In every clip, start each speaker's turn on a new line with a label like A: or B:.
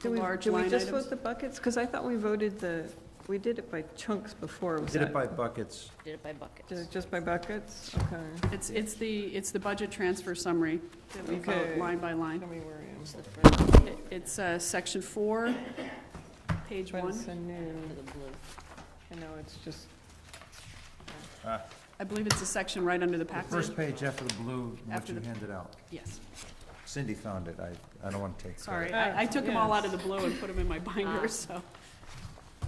A: Do we,
B: large
A: do we
B: line
A: just
B: items?
A: vote the buckets? Because I thought we voted the, we did it by chunks before, was
C: Did it
A: that-
C: by buckets.
D: Did it by buckets.
A: ju- Just by buckets? Okay.
B: It's, it's the, it's the budget transfer summary that we vote
A: Okay.
B: line by line.
A: Tell me where I am.
D: It's the first one
B: It- It's uh, section four, page
A: But
B: one.
A: it's a new,
D: to the blue.
A: I know, it's just,
B: I believe it's a section right under the
C: The
B: packet.
C: first page after the blue, what
B: After
C: you
B: the-
C: handed out.
B: Yes,
C: Cindy found it. I, I don't want to take credit.
B: sorry. I I took them all
A: Yeah.
B: out of the blue and put them in my binder,
D: Ah.
B: so.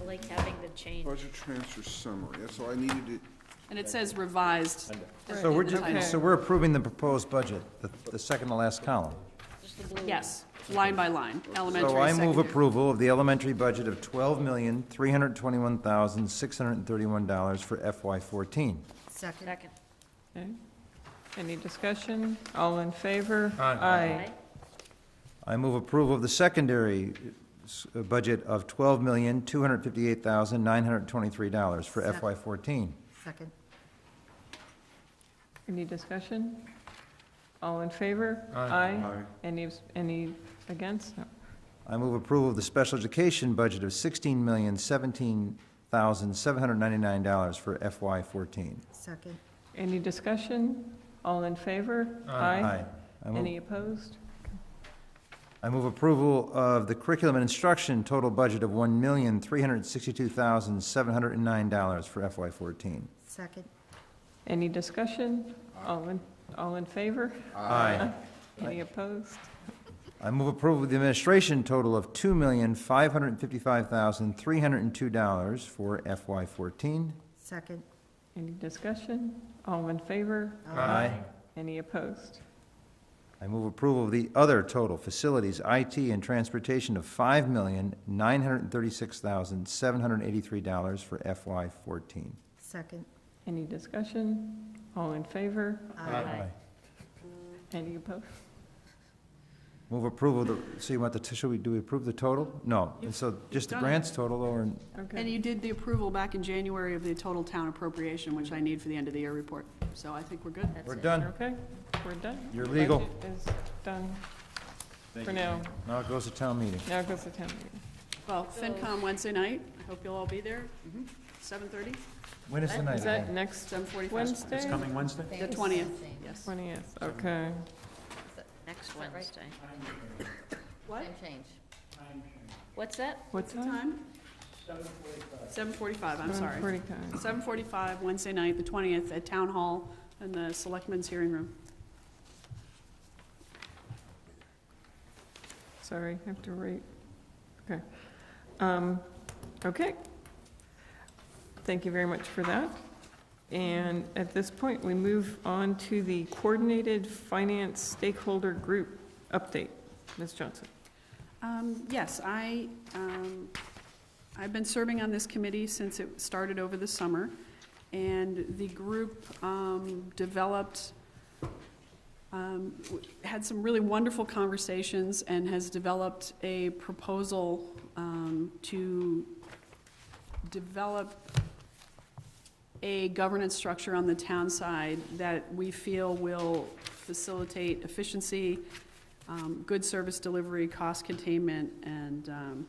D: I like having the change.
E: Budget transfer summary, that's all I needed it.
B: And it says revised. at the
C: So we're,
B: end of the
C: ju-
B: title.
C: so we're approving the proposed budget, the, the second to last column.
D: Just the blue.
B: Yes, line by line, elementary,
C: So I move
B: secondary.
C: approval of the elementary budget of twelve million, three hundred twenty-one thousand, six hundred thirty-one dollars for FY fourteen.
D: Second.
A: okay. eh? Any discussion? All in favor? Aye.
D: Aye.
C: I move approval of the secondary s- uh, budget of twelve million, two hundred fifty-eight thousand, nine hundred twenty-three dollars for FY fourteen.
F: Second.
A: Any discussion? All in favor? Aye. Any, any against? No.
C: I move approval of the special education budget of sixteen million, seventeen thousand, seven hundred ninety-nine dollars for FY fourteen.
F: Second.
A: Any discussion? All in favor? Aye.
C: I move-
A: Any opposed?
C: I move approval of the curriculum and instruction total budget of one million, three hundred sixty-two thousand, seven hundred and nine dollars for FY fourteen.
F: Second.
A: Any discussion? All in, all in favor?
C: Aye.
A: Any opposed?
C: I move approval of the administration total of two million, five hundred fifty-five thousand, three hundred and two dollars for FY fourteen.
F: Second.
A: Any discussion? All in favor?
C: Aye.
A: Any opposed?
C: I move approval of the other total, facilities, IT, and transportation of five million, nine hundred thirty-six thousand, seven hundred eighty-three dollars for FY fourteen.
F: Second.
A: Any discussion? All in favor?
D: Aye.
A: Any opposed?
C: Move approval, of the so you want the, t- should we, do we approve the total? No, and so just the
B: done it.
C: grants total, or,
B: And
A: Okay.
B: you did the approval back in January of the total town appropriation, which I need for the end of the year report. So I think we're good.
D: That's
C: we're
D: it.
C: done.
A: Okay, we're done.
C: You're
A: The
C: legal.
A: budget is done for now.
C: Now it goes to town meeting.
A: Now goes the town meeting.
B: Well, FinCom Wednesday night, I hope you'll all be there, seven thirty,
C: When is the night?
A: Is that
C: again?
A: next
B: seven forty-five,
A: Wednesday?
G: Wednesday?
B: the twentieth, yes.
A: Twentieth, okay.
D: Next Wednesday.
B: What?
D: Time change. What's that?
A: What's
B: The
A: that?
B: time? Seven forty-five, I'm sorry.
A: Forty-five.
B: Seven forty-five, Wednesday night, the twentieth, at Town Hall in the Selectmen's Hearing Room.
A: Sorry, I have to wait. Okay. Um, Okay. Thank you very much for that. And at this point, we move on to the Coordinated Finance Stakeholder Group update. Ms. Johnson?
B: Um, Yes, I, um, I've been serving on this committee since it started over the summer, and the group um, developed, um, w- had some really wonderful conversations and has developed a proposal um, to develop a governance structure on the town side that we feel will facilitate efficiency, um, good service delivery, cost containment, and um,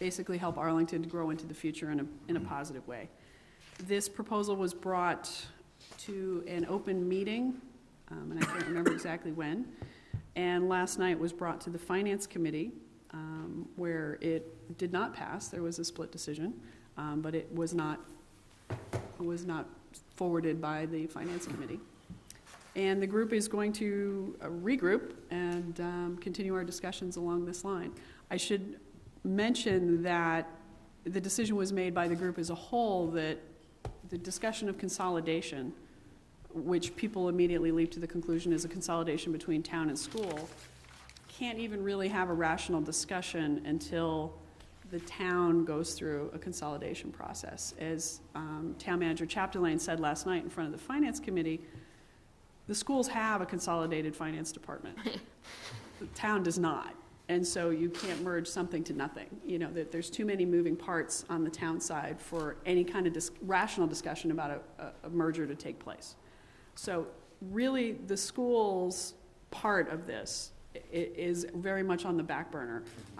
B: basically help Arlington to grow into the future in a, in a positive way. This proposal was brought to an open meeting, um, and I can't remember exactly when, and last night was brought to the Finance Committee, um, where it did not pass, there was a split decision, um, but it was not, was not forwarded by the Finance Committee. And the group is going to uh, regroup and um, continue our discussions along this line. I should mention that the decision was made by the group as a whole that the discussion of consolidation, which people immediately leap to the conclusion is a consolidation between town and school, can't even really have a rational discussion until the town goes through a consolidation process. As um, Town Manager Chapdelaine said last night in front of the Finance Committee, the schools have a consolidated finance department. The town does not. And so you can't merge something to nothing. You know, that there's too many moving parts on the town side for any kind of dis- rational discussion about a, a- a merger to take place. So really, the schools part of this i- i- is very much on the back burner.